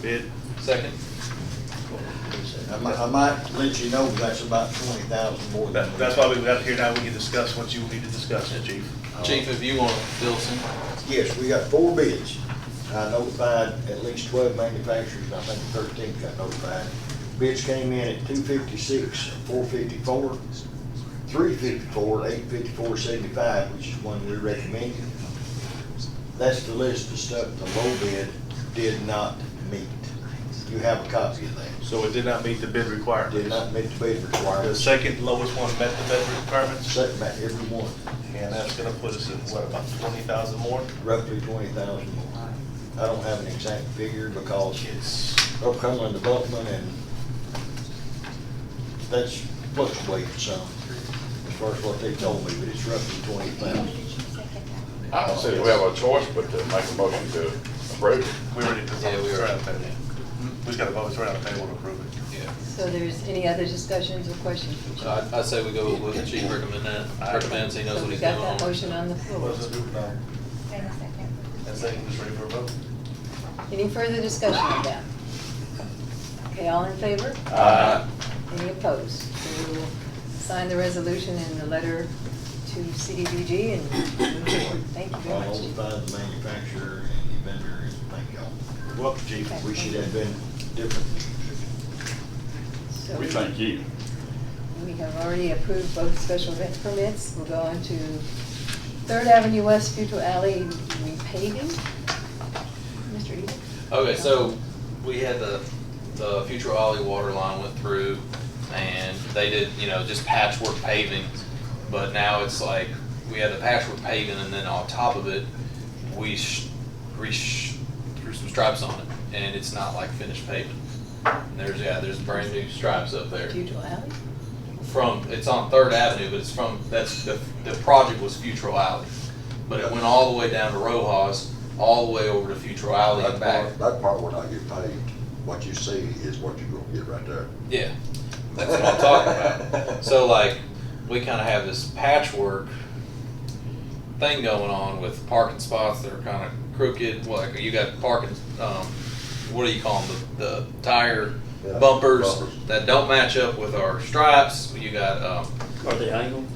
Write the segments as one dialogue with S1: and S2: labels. S1: bid.
S2: Second?
S3: I might, I might let you know that's about twenty thousand more than.
S1: That, that's why we were out here now, we can discuss what you need to discuss, chief.
S2: Chief, if you want to fill some,
S3: Yes, we got four bids. I notified at least twelve manufacturers, I think thirteen got notified. Bids came in at two fifty-six, four fifty-four, three fifty-four, eight fifty-four, seventy-five, which is one we recommended. That's the list of stuff the low bid did not meet. You have a copy of that.
S1: So it did not meet the bid
S3: Did
S1: requirements.
S3: not meet the bid
S1: The
S3: requirements,
S1: second lowest one met the bid requirements,
S3: setting back every one.
S1: and that's gonna put us at, what, about twenty thousand more?
S3: roughly twenty thousand more. I don't have an exact figure because
S1: It's,
S3: Oklahoma development and that's fluctuating some as far as what they told me, but it's roughly twenty thousand.
S4: I don't see that we have a choice but to make a motion to approve it.
S1: we already, it's
S2: Yeah, we
S1: it's
S2: already-
S1: around the Mm-hmm. table. We just gotta vote, it's around the table to approve it.
S2: yeah.
S5: So there's any other discussions or questions? from
S2: So
S5: you?
S2: Uh, I, I say we go with what Chief recommend that, recommends, he knows
S5: So
S2: what
S5: we
S2: he's
S5: got that motion
S2: doing.
S5: on the floor.
S1: Was it, no, and second was ready for a vote?
S5: Any further discussion on that? Okay, all in favor?
S2: Uh,
S4: Aye.
S5: Any opposed? So we will sign the resolution and the letter to CDBG and move forward. Thank you very
S3: I'll
S5: much.
S3: find the manufacturer and the vendor and thank y'all.
S1: You're welcome, chief.
S3: We should have been different.
S5: So
S4: We thank you.
S5: We have already approved both special event permits. We'll go on to Third Avenue West Futile Alley repaving. Mr. Eden?
S2: Okay, so we had the, the future Ollie water line went through and they did, you know, just patchwork paving. But now it's like, we had the patchwork paving and then on top of it, we sh, we sh, threw some stripes on it. And it's not like finished pavement. And There's, yeah, there's brand new stripes up there.
S5: Futile Alley?
S2: from, it's on Third Avenue, but it's from, that's, the, the project was Futuro Alley. But it went all the way down to Rojas, all the way over to Futuro Alley and
S6: That
S2: back.
S6: part, that part will not get paid. What you see is what you're gonna get right there.
S2: Yeah, that's what I'm talking about. So like, we kinda have this patchwork thing going on with parking spots that are kinda crooked, like, you got parking, um, what do you call them, the, the tire
S6: Yeah,
S2: bumpers
S6: bumpers.
S2: that don't match up with our stripes, you got, um,
S7: Are they angled?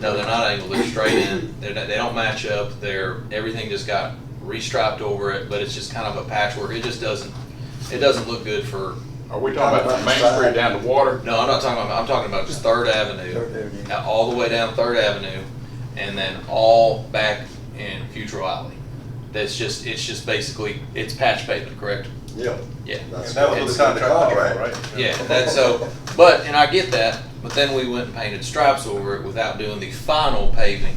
S2: No, they're not angled. They're straight in. They're not, they don't match up. They're everything just got restriped over it, but it's just kind of a patchwork. It just doesn't. It doesn't look good for.
S4: Are we talking about from Main Street down to water?
S2: No, I'm not talking about. I'm talking about just Third Avenue, now, all the way down Third Avenue, and then all back in Futuro Alley. That's just. It's just basically it's patch pavement, correct?
S6: Yeah.
S2: Yeah.
S6: That's
S1: And that was
S6: what
S1: what
S2: it's-
S1: the contract, was for,
S6: Right.
S1: right?
S2: Yeah, that's so, but, and I get that, but then we went and painted stripes over it without doing the final paving,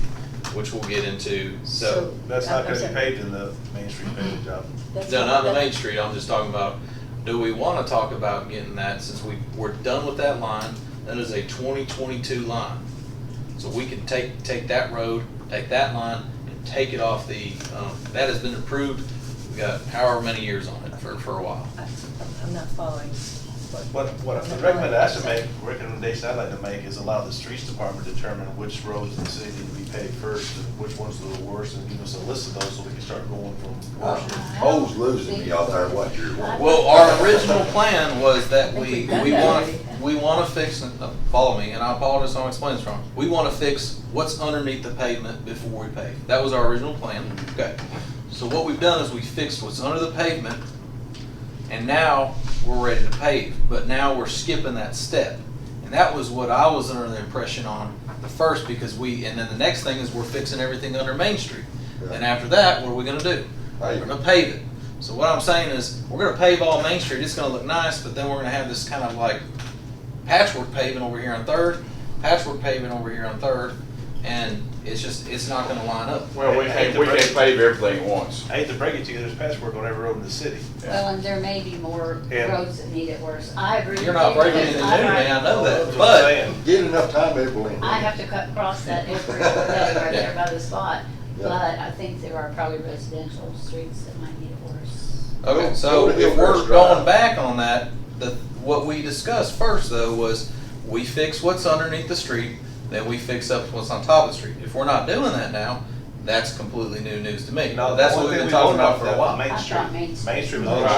S2: which we'll get into, so.
S1: That's not
S5: I'm
S1: gonna be
S5: sorry.
S1: paid in the Main Street paving job.
S5: That's
S2: No, not the
S5: that-
S2: Main Street, I'm just talking about, do we wanna talk about getting that, since we, we're done with that line, that is a twenty twenty-two line. So we can take, take that road, take that line, and take it off the, um, that has been approved, we got however many years on it for, for a while.
S5: I- I'm I'm not following.
S1: What, what, the recommendation I should make, recommendation I'd like to make is allow the streets department to determine which roads in the city need to be paved first, and which ones are the worst, and give us a list of those so we can start going from worst.
S2: Uh-huh.
S1: to-
S6: Hoes losing me out there, what you're.
S2: Well, our original plan was that
S5: I think
S2: we,
S5: we've done
S2: we
S5: that
S2: want,
S5: already.
S2: we want to fix, uh, follow me, and I apologize, I'm explaining this wrong. We want to fix what's underneath the pavement before we pave. That was our original plan, okay. So what we've done is we fixed what's under the pavement, and now we're ready to pave, but now we're skipping that step. And that was what I was under the impression on the first, because we, and then the next thing is we're fixing everything under Main Street. And after that, what are we gonna do? We're
S6: Pave it.
S2: gonna pave it. So what I'm saying is, we're gonna pave all Main Street, it's gonna look nice, but then we're gonna have this kind of like patchwork paving over here on Third, patchwork paving over here on Third, and it's just, it's not gonna line up.
S4: Well, we can't, we can't pave everything at once.
S1: I hate to break it to you, there's patchwork on every road in the city.
S8: Well, and there may be more
S1: Yeah.
S8: roads that need it worse. I agree.
S2: You're not
S8: with you,
S2: breaking anything new,
S8: because I-
S2: man, I know
S1: That's
S2: that,
S1: what I'm
S2: but.
S1: saying.
S6: Get enough time, it will end.
S8: I have to cut across that every day right there by the spot,
S6: Yeah.
S8: but I think there are probably residential streets that might need it worse.
S2: Okay,
S6: Go-
S2: so
S6: go to
S2: if
S6: the
S2: we're
S6: first drive.
S2: going back on that, the, what we discussed first though was we fix what's underneath the street, then we fix up what's on top of the street. If we're not doing that now, that's completely new news to me.
S1: No,
S2: That's
S1: one
S2: what
S1: thing
S2: we've been
S1: we
S2: talking
S1: voted on
S2: about for a
S1: that
S2: while.
S1: Main
S8: I
S1: Street,
S8: thought Main Street.
S1: Main Street was
S6: Main
S1: the